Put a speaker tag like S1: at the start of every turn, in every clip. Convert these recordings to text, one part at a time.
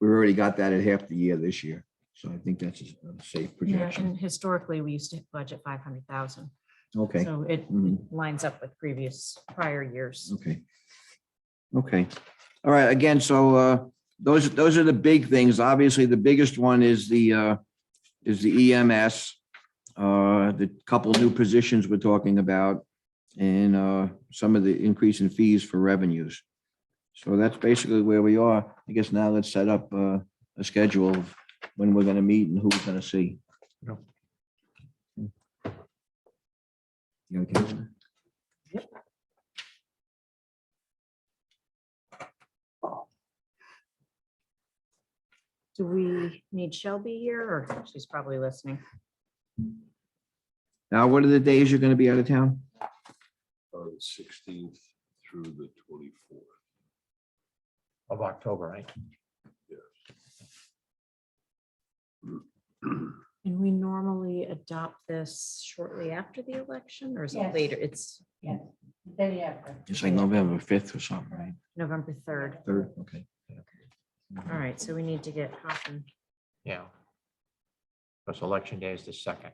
S1: We've already got that at half the year this year, so I think that's a safe
S2: Yeah,
S1: projection.
S2: and historically, we used to budget five hundred thousand,
S1: Okay,
S2: so it
S1: Mhm.
S2: lines up with previous prior years.
S1: okay. Okay, all right, again, so uh, those, those are the big things. Obviously, the biggest one is the, uh, is the EMS. uh, The couple new positions we're talking about and uh, some of the increase in fees for revenues. So that's basically where we are. I guess now let's set up uh, a schedule of when we're going to meet and who we're going to see.
S3: Yep.
S1: You okay? with that?
S2: Do we need Shelby here, or she's probably listening?
S1: Now, what are the days you're going to be out of town?
S4: on the uh, sixteenth through the twenty-fourth.
S3: of October, right?
S2: And we normally adopt this shortly after the election, or is it
S5: Yes.
S2: later? It's
S5: Day after.
S1: It's like November 5th or something, right?
S2: November third.
S1: Third, okay.
S2: All right, so we need to get Hoffman.
S3: Yeah. Because election day is the second.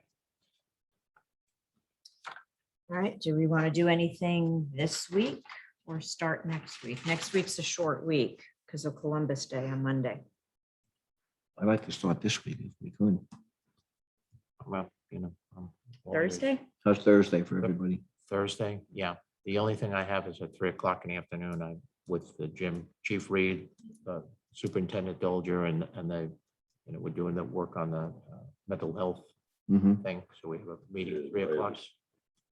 S2: All right, do we want to do anything this week or start next week? Next week's a short week because of Columbus Day on Monday.
S1: I'd like to start this week if we could.
S3: Well, you know. um, I'm always-
S2: Thursday?
S1: How's Thursday for everybody?
S3: Thursday, yeah. The only thing I have is at three o'clock in the afternoon, I, with the gym chief Reed, uh, Superintendent Dolger and, and they, you know, we're doing the work on the uh, mental health
S1: Mm-hmm.
S3: thing. So we have a meeting
S4: Yeah,
S3: at three
S4: right.
S3: o'clock.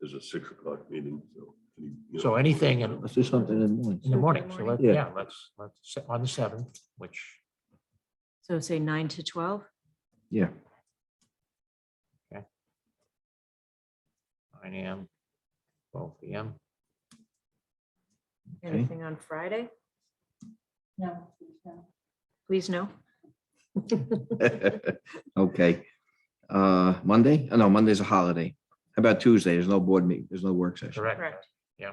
S4: There's a six o'clock meeting, so. any- you know,
S3: So anything in,
S1: Let's do something in the morning.
S3: in the morning. So let,
S1: Yeah.
S3: yeah, let's, let's, se- on the seventh, which,
S2: So say nine to twelve?
S1: Yeah,
S3: nine AM, twelve PM.
S1: Okay.
S2: Anything on Friday?
S5: No, no.
S2: Please no.
S1: okay. Uh, Monday? Oh, no, Monday's a holiday. How about Tuesday? There's no board meeting, there's no work session.
S3: Correct. Yeah.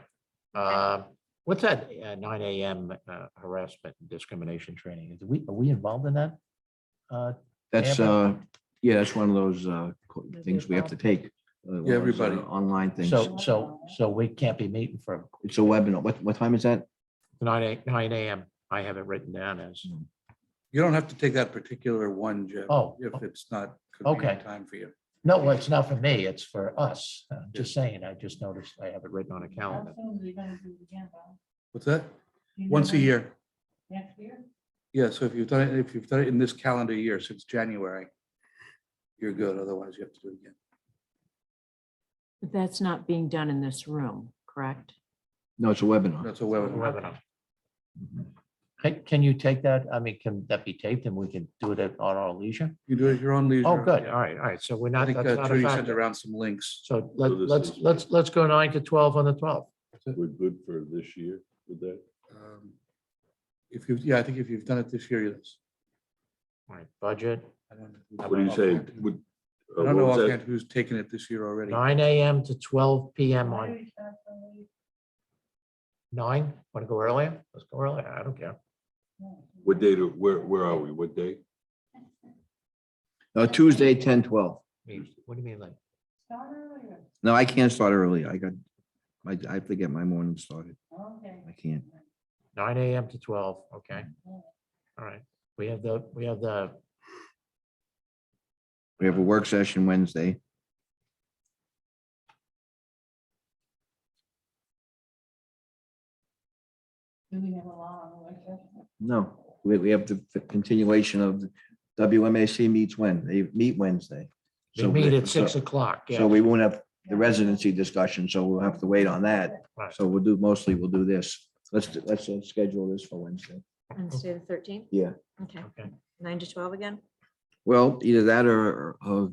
S3: Uh, What's that uh, nine AM uh, harassment and discrimination training? Is we, are we involved in that? Uh,
S1: That's, uh,
S3: Amber?
S1: yeah, that's one of those, uh, co-
S2: Maybe
S1: things we have to take. uh, one of those,
S4: everybody.
S1: uh, Online things.
S3: So, so, so we can't be meeting from
S1: It's a webinar. What, what time is that?
S3: nine, a- nine AM. I have it written down as,
S6: You don't have to take that particular one, Jeff.
S3: Oh,
S6: If
S3: okay.
S6: it's not convenient
S3: Okay.
S6: time for you.
S3: no, well, it's not for me, it's for us. I'm Just saying, I just noticed I have it written on a
S5: How
S3: calendar.
S5: soon you gonna do the agenda?
S6: What's that?
S5: Do you
S6: Once a
S5: know
S6: year.
S5: Next year?
S6: Yeah, so if you've done it, if you've done it in this calendar year since January, you're good. Otherwise you have to do it again.
S2: But That's not being done in this room, correct?
S1: No, it's a webinar.
S6: That's a webinar.
S3: Webinar. Can, can you take that? I mean, can that be taped and we can do it at on our leisure?
S6: You do it at your own leisure.
S3: Oh, good.
S6: Yeah.
S3: All right, all right. So we're
S6: I
S3: not,
S6: think
S3: that's
S6: uh,
S3: not a
S6: Trudy sent
S3: factor.
S6: around some links.
S3: So let,
S4: So this
S3: let's,
S4: is-
S3: let's, let's go nine to twelve on the twelfth.
S4: We're good for this year with that.
S6: Um, If you, yeah, I think if you've done it this year, yes.
S3: All right, budget,
S6: I don't know.
S3: What
S4: What do you say? Would-
S6: I
S4: uh, what
S6: don't know
S4: was that?
S6: offhand who's taken it this year already.
S3: nine AM to twelve PM
S5: Why
S3: on
S5: do you start so late?
S3: nine. Want to go earlier? Let's go earlier. I don't care.
S5: No.
S4: What date, are- where, where are we? What day?
S1: Uh, Tuesday, 10, 12.
S3: I mean, What do you mean like?
S5: Start earlier.
S1: No, I can't start early. I got, I, I have to get my morning started.
S5: Okay.
S1: I can't.
S3: Nine AM to twelve, okay. All
S5: Mm-hmm.
S3: right, we have the, we have the,
S1: We have a work session Wednesday.
S5: Do we have a law on the session?
S1: No, we, we have the continuation of the WMAC meets when? They meet Wednesday.
S3: they
S1: So
S3: meet
S1: we-
S3: at six
S1: so-
S3: o'clock. yeah.
S1: So we won't have the residency discussion, so we'll have to wait on that.
S3: Right.
S1: So we'll do, mostly we'll do this. Let's, do- let's uh, schedule this for Wednesday.
S2: Wednesday the thirteenth?
S1: Yeah.
S2: Okay,
S3: Okay,
S2: nine to twelve again?
S1: Well, either that or, uh,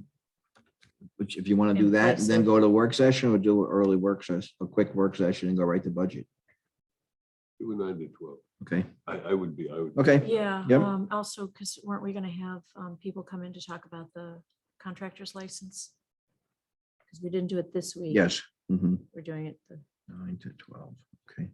S1: which if you want to do
S2: In
S1: that, and then
S2: person.
S1: go to work session or do an early work session, a quick work session and go right to budget.
S4: It was nine to twelve.
S1: Okay,
S4: I, I would be, I would.
S1: okay.
S2: Yeah,
S1: Yep.
S2: um, also, because weren't we gonna have, um, people come in to talk about the contractor's license? Because we didn't do it this week.
S1: Yes. Mhm.
S2: We're doing it the
S1: Nine to twelve, okay.